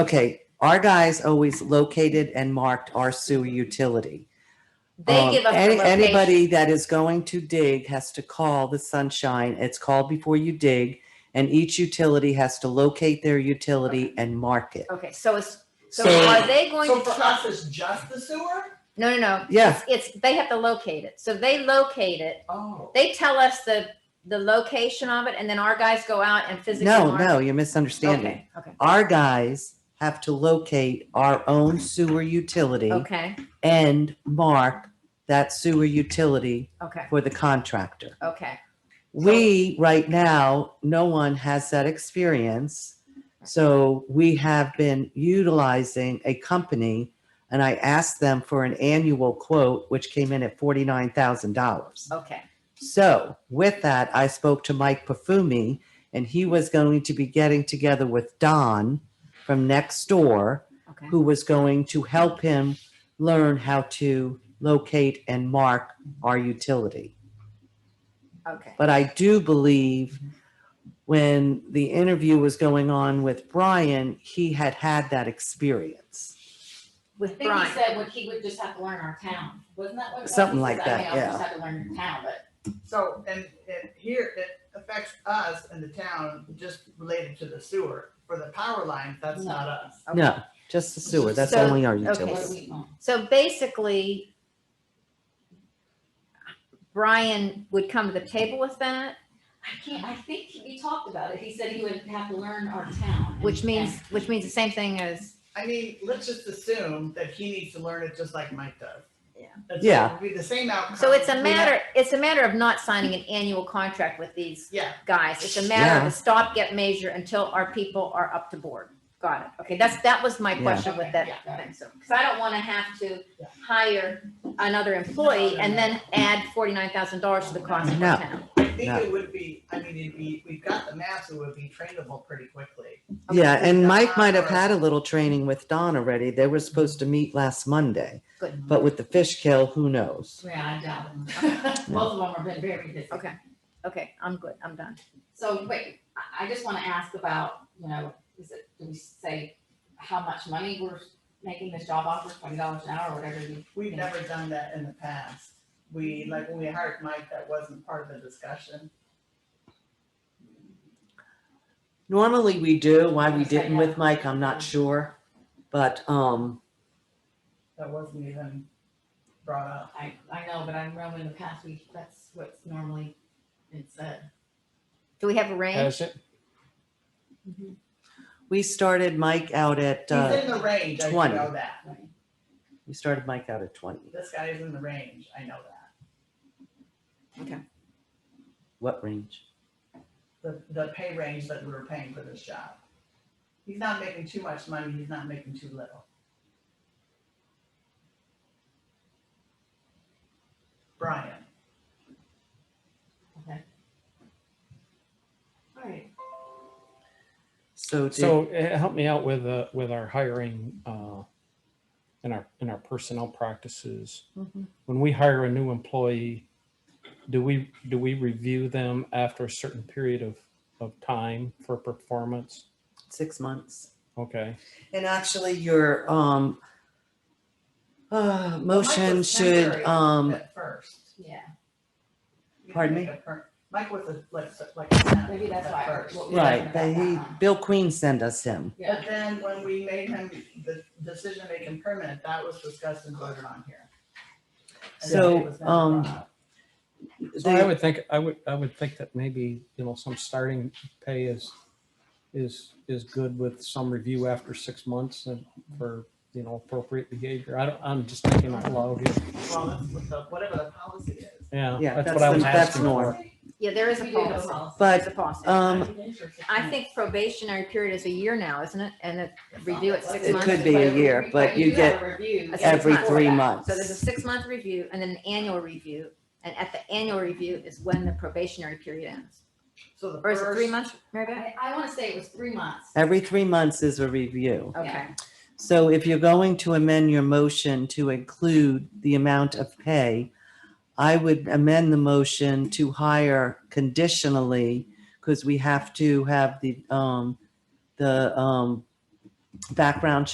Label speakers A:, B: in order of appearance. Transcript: A: Okay, our guys always located and marked our sewer utility.
B: They
A: Um,
B: give us
A: any-
B: the location.
A: Anybody that is going to dig has to call the sunshine. It's called before you dig. And each utility has to locate their utility and mark it.
B: Okay, so it's, so
A: So-
B: are they going
C: So
B: to?
C: for us, it's just the sewer?
B: No, no, no.
A: Yeah.
B: It's, it's- they have to locate it. So they locate it.
C: Oh.
B: They tell us the, the location of it and then our guys go out and physically.
A: No,
B: mark-
A: no, you're misunderstanding.
B: Okay, okay,
A: Our guys have to locate our own sewer utility
B: okay,
A: and mark that sewer utility
B: okay,
A: for the contractor.
B: okay.
A: We, right now, no one has that experience. So we have been utilizing a company and I asked them for an annual quote, which came in at $49,000.
B: Okay.
A: So with that, I spoke to Mike Pafumi and he was going to be getting together with Don from next door,
B: Okay.
A: who was going to help him learn how to locate and mark our utility.
B: Okay.
A: But I do believe when the interview was going on with Brian, he had had that experience.
B: With
D: I think
B: Brian.
D: he said what he would just have to learn our town, wasn't that what?
A: Something
D: he
A: like
D: said? I
A: that,
D: mean, I
A: yeah.
D: would just have to learn your town, but
C: So, and, and here, it affects us and the town just related to the sewer. For the power lines, that's not us.
B: Okay.
A: No, just the sewer. That's
B: So-
A: only our
D: what
A: utility.
D: we own.
B: So basically, Brian would come to the table with that,
D: I can't, I think he talked about it, he said he would have to learn our town. and-
B: which means,
D: and-
B: which means the same thing as,
C: I mean, let's just assume that he needs to learn it just like Mike does.
B: Yeah.
C: That's-
A: Yeah.
C: It would be the same outcome.
B: so it's
C: We'd
B: a
C: have-
B: matter, it's a matter of not signing an annual contract with these
C: Yeah,
B: guys, it's a matter
A: Yeah.
B: of a stopgap measure until our people are up to board. Got it. Okay, that's, that was my
A: Yeah.
B: question with that
D: Okay, yeah, got
B: thing, so, because I don't want to have to
C: Yeah.
B: hire another employee and then add forty-nine thousand dollars to the cost of the
A: No.
B: town.
C: I think
A: No.
C: it would be, I mean, it'd be, we've got the maps, it would be trainable pretty quickly.
A: Yeah,
C: Okay.
A: and Mike might have had a little training with Don already. They were supposed to meet last Monday.
B: Good.
A: But with the fish kill, who knows?
D: Yeah, I doubt it. Both of them have been very busy.
B: Okay. Okay, I'm good, I'm done.
D: So wait, I, I just wanna ask about, you know, is it, do we say how much money we're making this job offer, twenty dollars an hour or whatever you?
C: We've never done that in the past. We,
B: Mm-hmm.
C: like, when we hired Mike, that wasn't part of the discussion.
A: Normally we do. Why we didn't with Mike, I'm not sure. But um,
C: That wasn't even brought up.
D: I, I know, but I remember in the past week, that's what's normally been said.
B: Do we have a range?
E: Has it?
A: we started Mike out at
C: He's
A: uh,
C: in the range, I do
A: 20.
C: know that.
A: we started Mike out at 20.
C: This guy is in the range, I know that.
A: What range?
C: The, the pay range that we were paying for this job. He's not making too much money, he's not making too little. Brian,
D: All right,
A: So did,
E: So eh, help me out with, uh, with our hiring, uh, and our, and our personnel practices.
A: Mhm.
E: When we hire a new employee, do we, do we review them after a certain period of, of time for performance?
A: six months.
E: Okay,
A: And actually your um uh, motion
C: was
A: should
C: temporary.
A: um
C: at first. You
D: yeah.
C: didn't
A: Pardon
C: make
A: me?
C: a per- Mike was a, like, like. a temp
D: Maybe that's
C: at
D: why.
C: first.
D: what we
A: right,
D: learned
A: but
D: about that
A: he
D: one.
A: Bill Queen sent us him.
C: But then when we made him the decision making permanent, that was discussed and voted on here. And then it
A: So
C: was never
A: um
C: brought up.
E: so I
A: the-
E: would think, I would, I would think that maybe, you know, some starting pay is, is, is good with some review after six months and for, you know, appropriate behavior. I don't, I'm just thinking out loud here.
C: Well, that's what the, whatever the policy is.
A: Yeah,
E: Yeah, that's
A: that's
E: what I
A: the-
E: was
A: that's
E: asking
A: norm.
E: for.
B: Yeah, there is a
D: We do have a
B: policy.
D: policy.
B: There's
A: but
B: a policy.
A: um
B: I think probationary period is a year now, isn't it? And it review it six
A: It
B: months.
A: could be a year, but you
D: do
A: get
D: have a review
B: a six
A: every
B: months.
A: three
D: before that.
A: months.
B: So there's a six-month review and then an annual review. And at the annual review is when the probationary period ends.
C: So the
B: Or is it three
C: first,
B: months, Mary Beth?
D: I, I wanna say it was three months.
A: Every three months is a review.
B: Okay,
A: So if you're going to amend your motion to include the amount of pay, I would amend the motion to hire conditionally because we have to have the, um, the, um, background